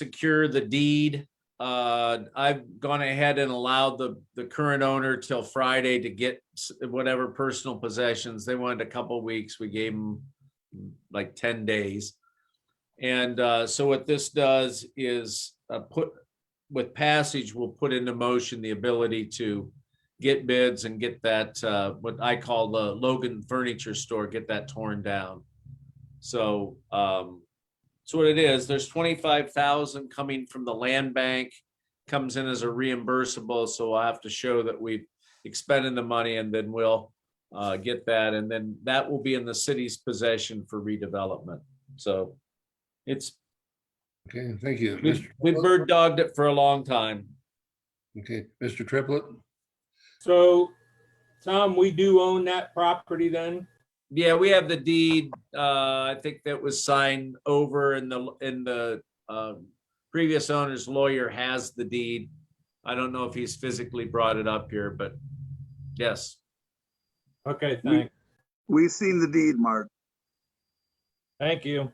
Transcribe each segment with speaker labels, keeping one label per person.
Speaker 1: secure the deed. Uh, I've gone ahead and allowed the, the current owner till Friday to get s- whatever personal possessions. They wanted a couple weeks. We gave them like ten days. And, uh, so what this does is, uh, put, with passage, we'll put into motion the ability to get bids and get that, uh, what I call the Logan Furniture Store, get that torn down. So, um, so what it is, there's twenty-five thousand coming from the land bank, comes in as a reimbursable, so I have to show that we've expended the money and then we'll uh, get that, and then that will be in the city's possession for redevelopment. So it's,
Speaker 2: Okay, thank you.
Speaker 1: we've
Speaker 2: Mr.
Speaker 1: we've bird dogged it for a long time.
Speaker 2: Okay, Mr. Triplett,
Speaker 3: So, Tom, we do own that property then?
Speaker 1: Yeah, we have the deed, uh, I think that was signed over and the, and the, um, previous owner's lawyer has the deed. I don't know if he's physically brought it up here, but yes,
Speaker 3: Okay, thank,
Speaker 4: We've seen the deed, Mark.
Speaker 3: thank you.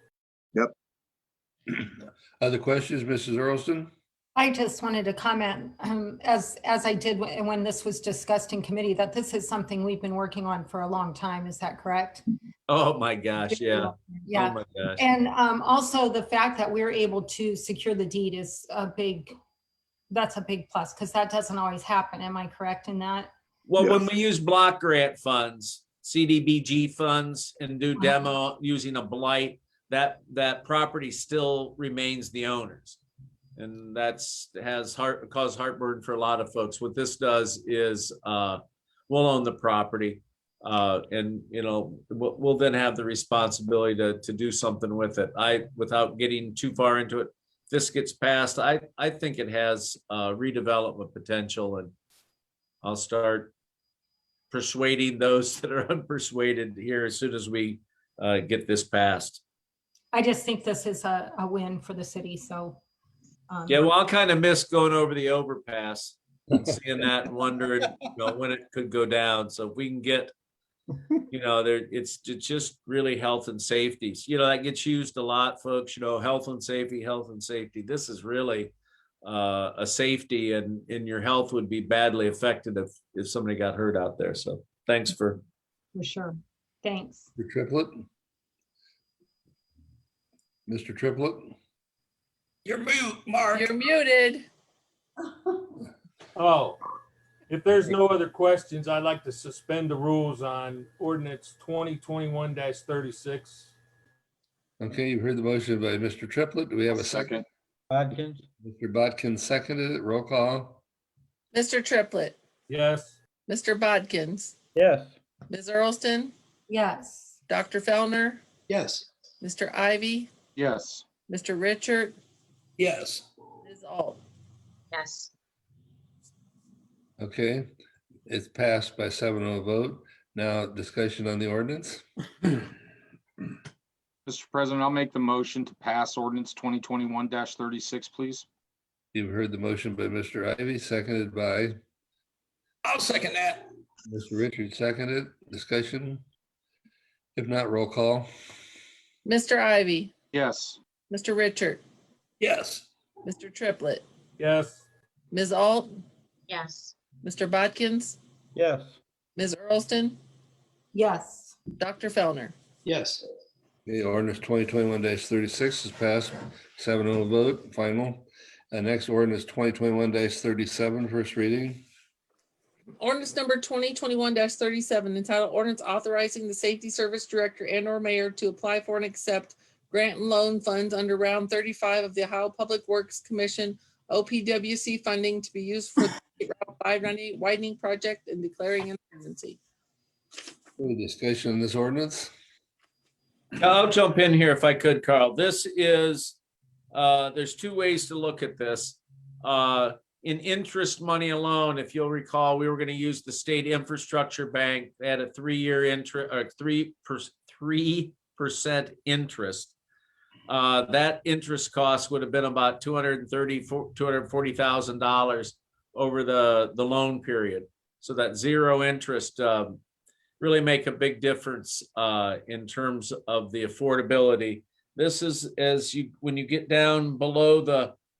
Speaker 2: other questions, Mrs. Earlston?
Speaker 5: I just wanted to comment, um, as, as I did when when this was discussed in committee, that this is something we've been working on for a long time. Is that correct?
Speaker 1: oh my gosh, yeah. Oh
Speaker 5: Yeah.
Speaker 1: my gosh.
Speaker 5: And um, also the fact that we're able to secure the deed is a big, that's a big plus because that doesn't always happen. Am I correct in that?
Speaker 1: Well, when we use block grant funds, CDBG funds and do demo using a blight, that, that property still remains the owner's. And that's, has heart, caused heartburn for a lot of folks. What this does is, uh, we'll own the property. Uh, and, you know, we'll, we'll then have the responsibility to, to do something with it. I, without getting too far into it, this gets passed, I, I think it has uh, redevelopment potential and I'll start persuading those that are unpersuaded here as soon as we uh, get this passed.
Speaker 5: I just think this is a, a win for the city, so. um,
Speaker 1: Yeah, well, I'll kind of miss going over the overpass and seeing that and wondering, you know, when it could go down. So if we can get, you know, there, it's, it's just really health and safety. You know, that gets used a lot, folks, you know, health and safety, health and safety. This is really uh, a safety and, and your health would be badly affected if, if somebody got hurt out there. So thanks for
Speaker 5: For sure. Thanks.
Speaker 2: Mr. Triplett? Mr. Triplett?
Speaker 6: You're mute, Mark.
Speaker 7: You're muted.
Speaker 3: Oh, if there's no other questions, I'd like to suspend the rules on ordinance twenty twenty-one thirty-six.
Speaker 2: Okay, you've heard the motion by Mr. Triplett. Do we have a second?
Speaker 8: Bodkins,
Speaker 2: Mr. Bodkin seconded it. Roll call.
Speaker 7: Mr. Triplett,
Speaker 3: Yes,
Speaker 7: Mr. Bodkins,
Speaker 8: yes.
Speaker 7: Ms. Earlston,
Speaker 5: Yes.
Speaker 7: Dr. Fellner,
Speaker 6: Yes.
Speaker 7: Mr. Ivy,
Speaker 8: Yes.
Speaker 7: Mr. Richard,
Speaker 6: Yes.
Speaker 7: Ms. Alt.
Speaker 9: Yes.
Speaker 2: Okay, it's passed by seven oh vote. Now discussion on the ordinance.
Speaker 10: Mr. President, I'll make the motion to pass ordinance twenty twenty-one thirty-six, please.
Speaker 2: You've heard the motion by Mr. Ivy, seconded by
Speaker 6: I'll second that.
Speaker 2: Mr. Richard, seconded. Discussion? If not, roll call.
Speaker 7: Mr. Ivy,
Speaker 10: Yes,
Speaker 7: Mr. Richard,
Speaker 6: Yes.
Speaker 7: Mr. Triplett,
Speaker 3: yes,
Speaker 7: Ms. Alt,
Speaker 9: Yes.
Speaker 7: Mr. Bodkins,
Speaker 8: Yes.
Speaker 7: Ms. Earlston,
Speaker 5: Yes.
Speaker 7: Dr. Fellner.
Speaker 6: Yes.
Speaker 2: The ordinance twenty twenty-one thirty-six is passed, 7-0 vote, final. And next ordinance twenty twenty-one 37 first reading.
Speaker 7: Ordinance number twenty twenty-one thirty-seven entitled ordinance authorizing the safety service director and or mayor to apply for and accept grant and loan funds under round thirty-five of the Ohio Public Works Commission, OPWC funding to be used for the State Route five ninety-eight widening project and declaring an emergency.
Speaker 2: Any discussion on this ordinance?
Speaker 1: I'll jump in here if I could, Carl. This is, uh, there's two ways to look at this. Uh, in interest money alone, if you'll recall, we were gonna use the state infrastructure bank. They had a three-year interest, or three per, three percent interest. Uh, that interest cost would have been about two hundred and thirty, two hundred and forty thousand dollars over the, the loan period. So that zero interest, um, really make a big difference uh, in terms of the affordability. This is as you, when you get down below the